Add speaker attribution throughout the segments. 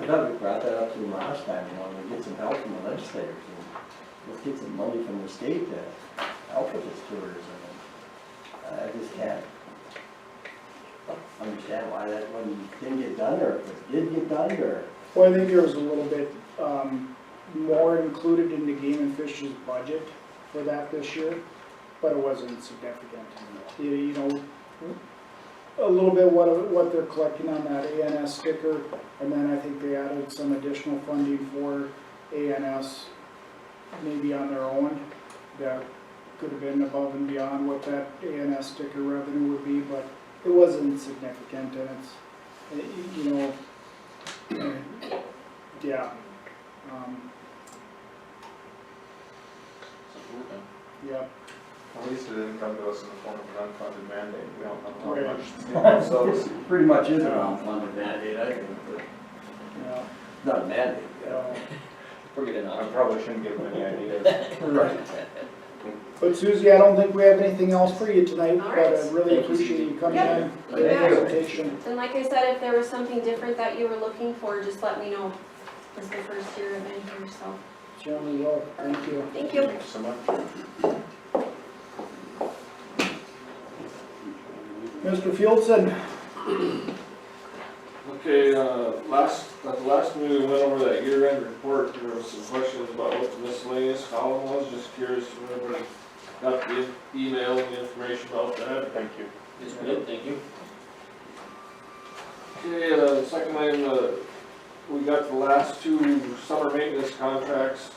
Speaker 1: I thought we brought that up to them last time, you know, to get some help from the legislators, and let's get some money from the state to help with this tourism. And I just can't understand why that one didn't get done, or if it did get done, or,
Speaker 2: Well, I think there was a little bit um, more included in the game and fish's budget for that this year, but it wasn't significant. You- You know, a little bit what, what they're collecting on that ANS sticker, and then I think they added some additional funding for ANS maybe on their own. That could have been above and beyond what that ANS sticker revenue would be, but it wasn't significant and it's, you know, yeah, um, yeah,
Speaker 3: At least it didn't come to us in the form of an unfunded mandate, we don't know how
Speaker 2: Right.
Speaker 3: much. you know, So, it's-
Speaker 1: it pretty much is a non-funded um, mandate, I think, but
Speaker 2: yeah,
Speaker 1: it's not a mandate.
Speaker 2: yeah.
Speaker 1: We're good
Speaker 3: I
Speaker 1: enough.
Speaker 3: probably shouldn't give them any ideas.
Speaker 1: Right.
Speaker 2: But Susie, I don't think we have anything else for you tonight,
Speaker 4: All
Speaker 2: but
Speaker 4: right.
Speaker 2: I really
Speaker 1: Thank you,
Speaker 2: appreciate you coming
Speaker 4: Yeah.
Speaker 2: in,
Speaker 1: Thank
Speaker 2: and your
Speaker 4: you.
Speaker 2: presentation.
Speaker 4: And like I said, if there was something different that you were looking for, just let me know. It's the first year I've been here, so,
Speaker 2: Certainly will, thank you.
Speaker 4: thank you.
Speaker 3: Thank you so much.
Speaker 2: Mr. Fieldson,
Speaker 5: Okay, uh, last, at the last meeting, we went over that year-end report, there was some questions about what the miscellaneous column was, just curious if anybody got the email and the information about that.
Speaker 3: Thank you.
Speaker 5: Yes, we did, thank you. Okay, uh, second item, uh, we got the last two summer maintenance contracts,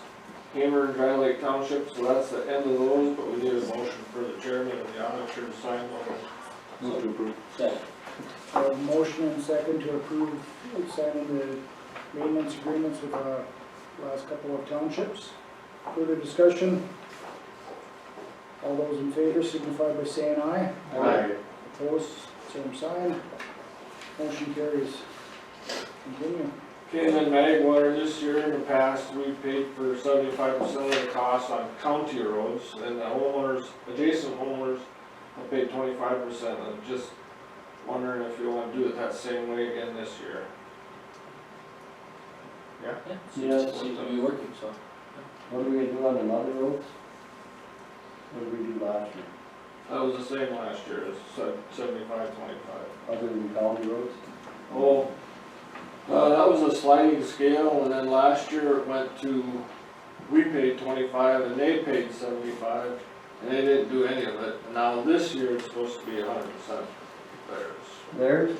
Speaker 5: Hamer and Dry Lake Township, so that's the end of those, but we need a motion for the chairman and the auditor to sign one.
Speaker 3: Move to approve.
Speaker 2: a motion and second to approve signing the maintenance agreements with the last couple of townships. Further discussion? All those in favor signify by saying aye.
Speaker 3: Aye.
Speaker 2: Opposed, same sign. Motion carries. Continue.
Speaker 5: Okay, and then Magwater, this year in the past, we paid for seventy-five percent of the cost on county roads, and the homeowners, adjacent homeowners, have paid twenty-five percent, I'm just wondering if you wanna do it that same way again this year.
Speaker 6: Yeah, seems, seems to be working, so.
Speaker 1: What are we gonna do on the mother roads? What did we do last year,
Speaker 5: That was the same last year, it's se- seventy-five, twenty-five.
Speaker 1: other than county roads?
Speaker 5: Oh, uh, that was a sliding scale, and then last year it went to, we paid twenty-five and they paid seventy-five, and they didn't do any of it. Now this year it's supposed to be a hundred percent theirs.
Speaker 1: Theirs?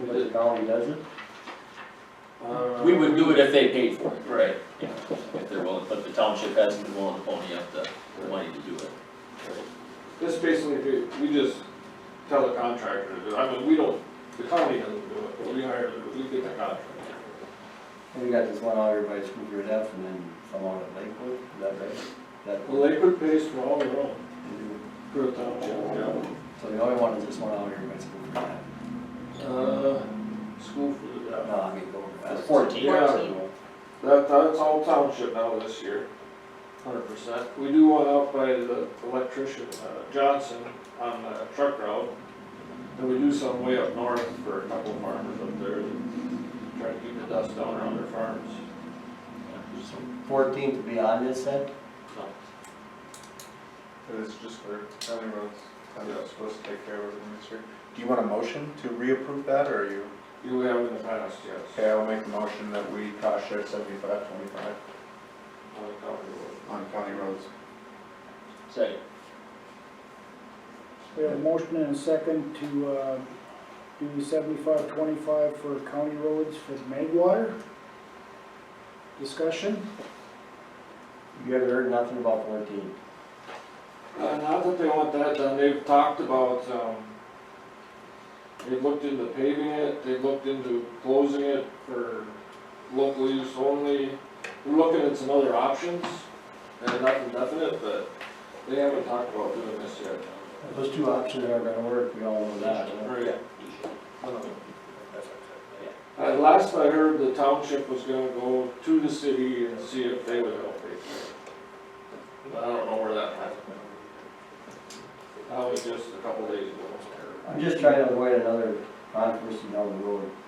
Speaker 1: But the county doesn't?
Speaker 5: Uh,
Speaker 6: We would do it if they paid for it. Right. Yeah, if they're willing, but the township hasn't been willing to pony up the, the money to do it.
Speaker 5: This basically, we- we just tell the contractor to do it, I mean, we don't, the county doesn't do it, but we hire, we get the contractor.
Speaker 1: And we got this one out here by Spooker F and then someone at Lakewood, is that right? That-
Speaker 5: Well, Lakewood pays for all their own,
Speaker 1: So
Speaker 5: for the township, yeah.
Speaker 1: the only one is this one out here by Spooker F.
Speaker 5: Uh, school food, yeah.
Speaker 1: No, I mean, go over
Speaker 6: It's
Speaker 1: that.
Speaker 6: fourteen.
Speaker 4: Fourteen.
Speaker 5: That, that's all township now this year, hundred percent. We do one out by the electrician, uh, Johnson, on the truck route. And we do some way up north for a couple farmers up there, that try to keep the dust down around their farms.
Speaker 1: Fourteen to be on this then?
Speaker 3: It's just for county roads, county roads supposed to take care of everything this year. Do you want a motion to reapprove that, or are you?
Speaker 5: You have in the past, yes.
Speaker 3: Okay, I'll make a motion that we cost share seventy-five, twenty-five
Speaker 5: On the county road.
Speaker 3: on county roads.
Speaker 6: Second.
Speaker 2: We have a motion and a second to, uh, do seventy-five twenty-five for county roads for the Magwater. Discussion?
Speaker 1: You haven't heard nothing about fourteen?
Speaker 5: Uh, not that they want that done, they've talked about, um, they've looked into paving it, they've looked into closing it for local use only. We're looking at some other options, and nothing definite, but they haven't talked about doing this yet.
Speaker 1: Those two options aren't gonna work, we all know that. huh?
Speaker 5: Right. Uh, last I heard, the township was gonna go to the city and see if they would help pay for it. But I don't know where that happened. That was just a couple days ago.
Speaker 1: I'm just trying to avoid another controversy down the road.